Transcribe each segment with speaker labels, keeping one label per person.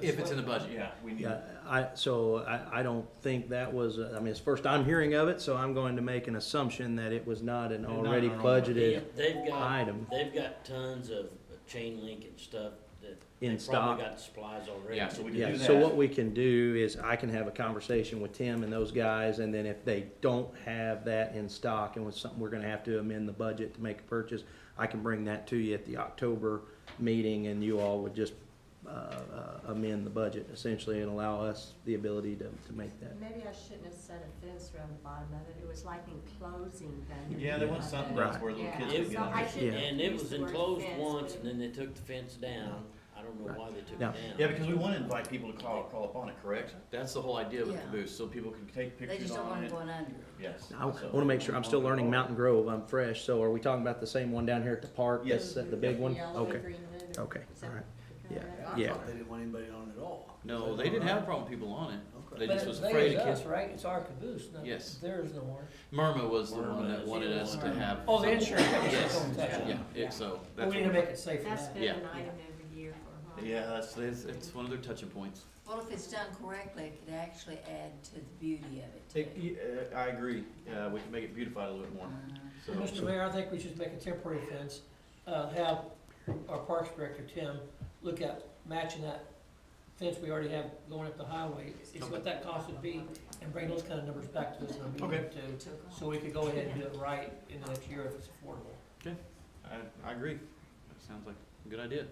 Speaker 1: If it's in the budget, yeah.
Speaker 2: we need.
Speaker 3: Yeah, I, so I, I don't think that was, I mean, it's first I'm hearing of it, so I'm going to make an assumption that it was not an already
Speaker 2: an
Speaker 3: budgeted
Speaker 4: They- They've got,
Speaker 3: item.
Speaker 4: they've got tons of chain link and stuff that.
Speaker 3: In
Speaker 4: they've probably
Speaker 3: stock.
Speaker 4: Got supplies already.
Speaker 1: Yeah.
Speaker 2: So we can
Speaker 3: Yeah,
Speaker 2: do
Speaker 3: so what
Speaker 2: that.
Speaker 3: we can do is I can have a conversation with Tim and those guys, and then if they don't have that in stock and with something, we're gonna have to amend the budget to make a purchase, I can bring that to you at the October meeting, and you all would just, uh, uh, amend the budget essentially and allow us the ability to, to make that.
Speaker 5: Maybe I shouldn't have said a fence around the bottom of it, it was like enclosing them.
Speaker 2: Yeah, there was something
Speaker 3: Right.
Speaker 2: else where little kids
Speaker 5: Yeah.
Speaker 2: could get
Speaker 5: So I
Speaker 2: under.
Speaker 5: shouldn't
Speaker 3: Yeah.
Speaker 4: And it was
Speaker 5: use the word
Speaker 4: enclosed
Speaker 5: fence,
Speaker 4: once
Speaker 5: but-
Speaker 4: and then they took the fence down. I don't know why they took it
Speaker 3: Now-
Speaker 4: down.
Speaker 2: Yeah, because we want to invite people to call, call upon it, correct?
Speaker 1: That's the whole idea of a
Speaker 6: Yeah.
Speaker 1: caboose, so people can,
Speaker 2: Take
Speaker 6: They
Speaker 2: pictures
Speaker 6: just don't
Speaker 2: on
Speaker 6: want
Speaker 2: it.
Speaker 6: it going under.
Speaker 2: Yes.
Speaker 3: I
Speaker 2: so-
Speaker 3: wanna make sure, I'm still learning Mountain Grove, I'm fresh, so are we talking about the same one down here at the park?
Speaker 2: Yes.
Speaker 3: that's The big one?
Speaker 5: Yellow or
Speaker 3: Okay.
Speaker 5: green one, or
Speaker 3: Okay,
Speaker 5: is that
Speaker 3: all right.
Speaker 5: the color
Speaker 3: Yeah.
Speaker 5: of it?
Speaker 3: Yeah.
Speaker 7: They didn't want anybody on at all.
Speaker 1: no, they didn't have a problem with people on it. They
Speaker 8: But
Speaker 1: just was
Speaker 8: the thing
Speaker 1: afraid
Speaker 8: is
Speaker 1: of kids.
Speaker 8: us, Right, it's our caboose, not
Speaker 1: Yes.
Speaker 8: theirs no more.
Speaker 1: Myrna was the one
Speaker 2: Myrna
Speaker 1: that
Speaker 2: is
Speaker 1: wanted
Speaker 2: the
Speaker 1: us to
Speaker 2: one.
Speaker 1: have.
Speaker 8: Oh, the
Speaker 1: some-
Speaker 8: insurance company's
Speaker 1: Yes,
Speaker 8: gonna touch it.
Speaker 1: yeah, it, so.
Speaker 8: But
Speaker 1: that's
Speaker 8: We need to
Speaker 1: what-
Speaker 8: make it safe for
Speaker 5: That's
Speaker 8: that.
Speaker 5: been an
Speaker 1: Yeah.
Speaker 5: item every year for a while.
Speaker 2: Yeah, that's,
Speaker 1: It's, it's one of their touching points.
Speaker 6: Well, if it's done correctly, it could actually add to the beauty of it
Speaker 2: it-
Speaker 6: too.
Speaker 2: y- uh, I agree. Uh, we can make it beautified a little bit more. So,
Speaker 8: Mr. Mayor, I think we should make a temporary fence, uh, have our Parks Director, Tim, look at matching that fence we already have going up the highway, see what that cost would be, and bring those kind of numbers back to us in a meeting
Speaker 2: Okay.
Speaker 8: too,
Speaker 6: Took off.
Speaker 8: so we could go ahead and do it right in the next year if it's affordable.
Speaker 2: I, I agree.
Speaker 1: That Sounds like a good idea.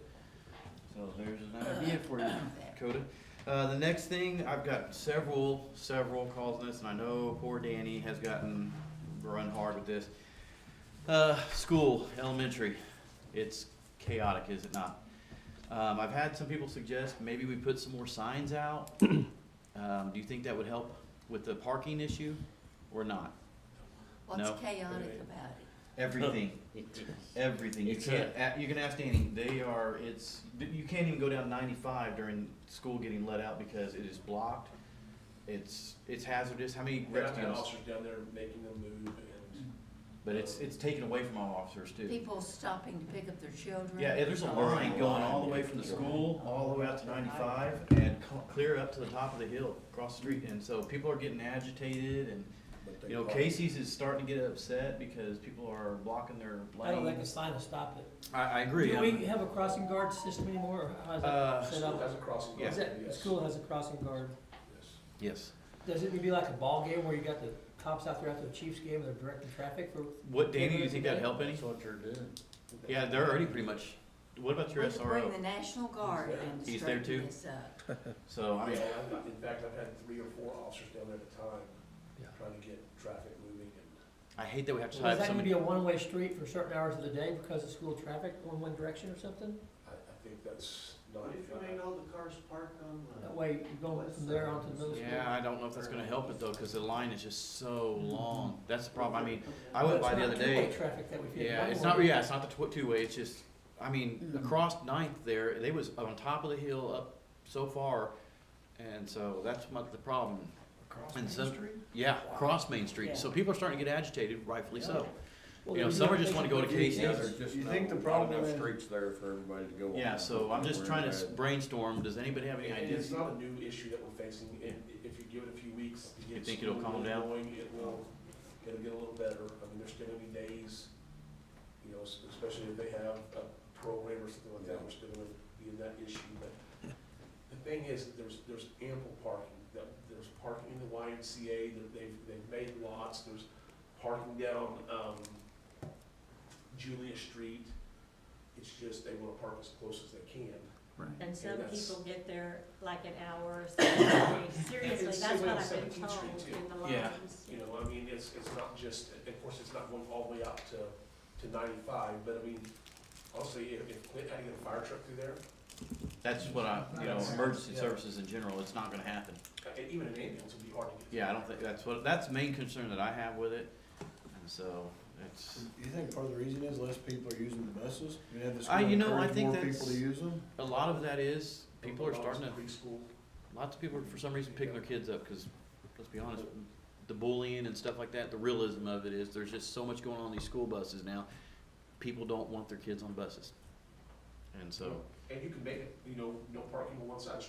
Speaker 2: So there's an idea for you.
Speaker 6: There.
Speaker 2: Coda. Uh, the next thing, I've got several, several calls on this, and I know poor Danny has gotten run hard with this. Uh, school, elementary, it's chaotic, is it not? Um, I've had some people suggest maybe we put some more signs out. Um, do you think that would help with the parking issue or not? No.
Speaker 6: What's chaotic about it?
Speaker 2: Everything, everything. You
Speaker 4: It's
Speaker 2: can't, a- you can ask Danny, they are, it's, you can't even go down ninety-five during school getting let out because it is blocked. It's, it's hazardous. How many
Speaker 9: We've
Speaker 2: wrecks
Speaker 9: got
Speaker 2: do you know?
Speaker 9: officers down there making them move and.
Speaker 2: But it's, it's taken away from all officers too.
Speaker 6: People stopping to pick up their children.
Speaker 2: Yeah, there's a line going all the way from the school, all the way out to ninety-five and co- clear up to the top of the hill, across the street. And so people are getting agitated and,
Speaker 9: but they
Speaker 2: you know,
Speaker 9: block-
Speaker 2: Casey's is starting to get upset because people are blocking their
Speaker 8: I don't think a
Speaker 2: lanes.
Speaker 8: sign will stop it.
Speaker 2: I, I agree.
Speaker 8: Do
Speaker 2: I'm-
Speaker 8: we have a crossing guard system anymore, or how's
Speaker 2: Uh,
Speaker 8: that set
Speaker 9: School has
Speaker 8: up?
Speaker 9: a crossing
Speaker 2: Yeah.
Speaker 9: guard,
Speaker 8: Is that, the
Speaker 9: yes.
Speaker 8: school has a crossing guard.
Speaker 9: Yes.
Speaker 2: Yes.
Speaker 8: Does it be like a ball game where you got the cops out there after the Chiefs game and they're directing traffic for?
Speaker 2: What, Danny, do you think that'd help any?
Speaker 4: That's what you're doing.
Speaker 2: Yeah, they're already pretty much, what about your
Speaker 6: We could bring
Speaker 2: SRO?
Speaker 6: the National Guard in to
Speaker 2: He's there
Speaker 6: straighten
Speaker 2: too?
Speaker 6: this up.
Speaker 2: So, I mean,
Speaker 9: Yeah, I've got- in fact, I've had three or four officers down there at a time, trying to get traffic moving and.
Speaker 2: I hate that we have
Speaker 8: Is
Speaker 2: to have
Speaker 8: that gonna be
Speaker 2: somebody,
Speaker 8: a one-way street for certain hours of the day because of school traffic, going one direction or something?
Speaker 9: I, I think that's not.
Speaker 7: all the cars parked on
Speaker 8: That way you go from there onto the middle school.
Speaker 1: Yeah, I don't know if that's gonna help it though, cause the line is just so long. That's the problem. I mean, I went by the other day.
Speaker 8: Traffic that we feel.
Speaker 1: Yeah, it's not, yeah, it's not the tw- two-way, it's just, I mean,
Speaker 8: Mm-hmm.
Speaker 1: across Ninth there, they was on top of the hill up so far, and so that's much the problem. And so- Yeah, across Main Street, so people are starting to get agitated, rightfully so. You know, some are just wanna go to Casey's.
Speaker 7: You think the problem is?
Speaker 10: there for everybody to go
Speaker 2: yeah, so I'm just trying to s- brainstorm, does anybody have any
Speaker 9: And
Speaker 2: ideas?
Speaker 9: it's not a new issue that we're facing, if, if you give it a few weeks to get.
Speaker 2: You think it'll
Speaker 9: school
Speaker 2: calm down?
Speaker 9: going, It will, it'll get a little better, I mean, there's still gonna be days, you know, s- especially if they have uh, a program or something like that, we're still gonna be in that issue, but the thing is, that there's, there's ample parking, That- there's parking in the YMCA, that they've, they've made lots, there's parking down, um, Julia Street, it's just they wanna park as close as they can.
Speaker 5: And some
Speaker 9: that's-
Speaker 5: people get there like an hour or so, early. seriously,
Speaker 9: it's
Speaker 5: that's
Speaker 9: similar
Speaker 5: what
Speaker 9: to
Speaker 5: I've been
Speaker 9: 17th
Speaker 5: told
Speaker 9: Street too.
Speaker 5: in the
Speaker 2: Yeah.
Speaker 5: lines.
Speaker 9: You know, I mean, it's, it's not just, of course, it's not going all the way out to, to ninety-five, but I mean, honestly, if, if Clint had to get a fire truck through there,
Speaker 2: That's what I, you know, emergency services in general, it's not gonna happen.
Speaker 9: uh, and even an ambulance would be hard to get.
Speaker 2: Yeah, I don't think, that's what, that's the main concern that I have with it, and so, it's,
Speaker 7: You think part of the reason is less people are using the buses? You have this
Speaker 2: I- you know, I
Speaker 7: encourage
Speaker 2: think
Speaker 7: more people
Speaker 2: that's-
Speaker 7: to use them?
Speaker 2: a lot of that is, people are starting to
Speaker 9: Preschool.
Speaker 1: Lots of people are for some reason picking their kids up, cause let's be honest, the bullying and stuff like that, the realism of it is, there's just so much going on in these school buses now. People don't want their kids on buses. And so.
Speaker 9: And you can make it, you know, no parking on one side of the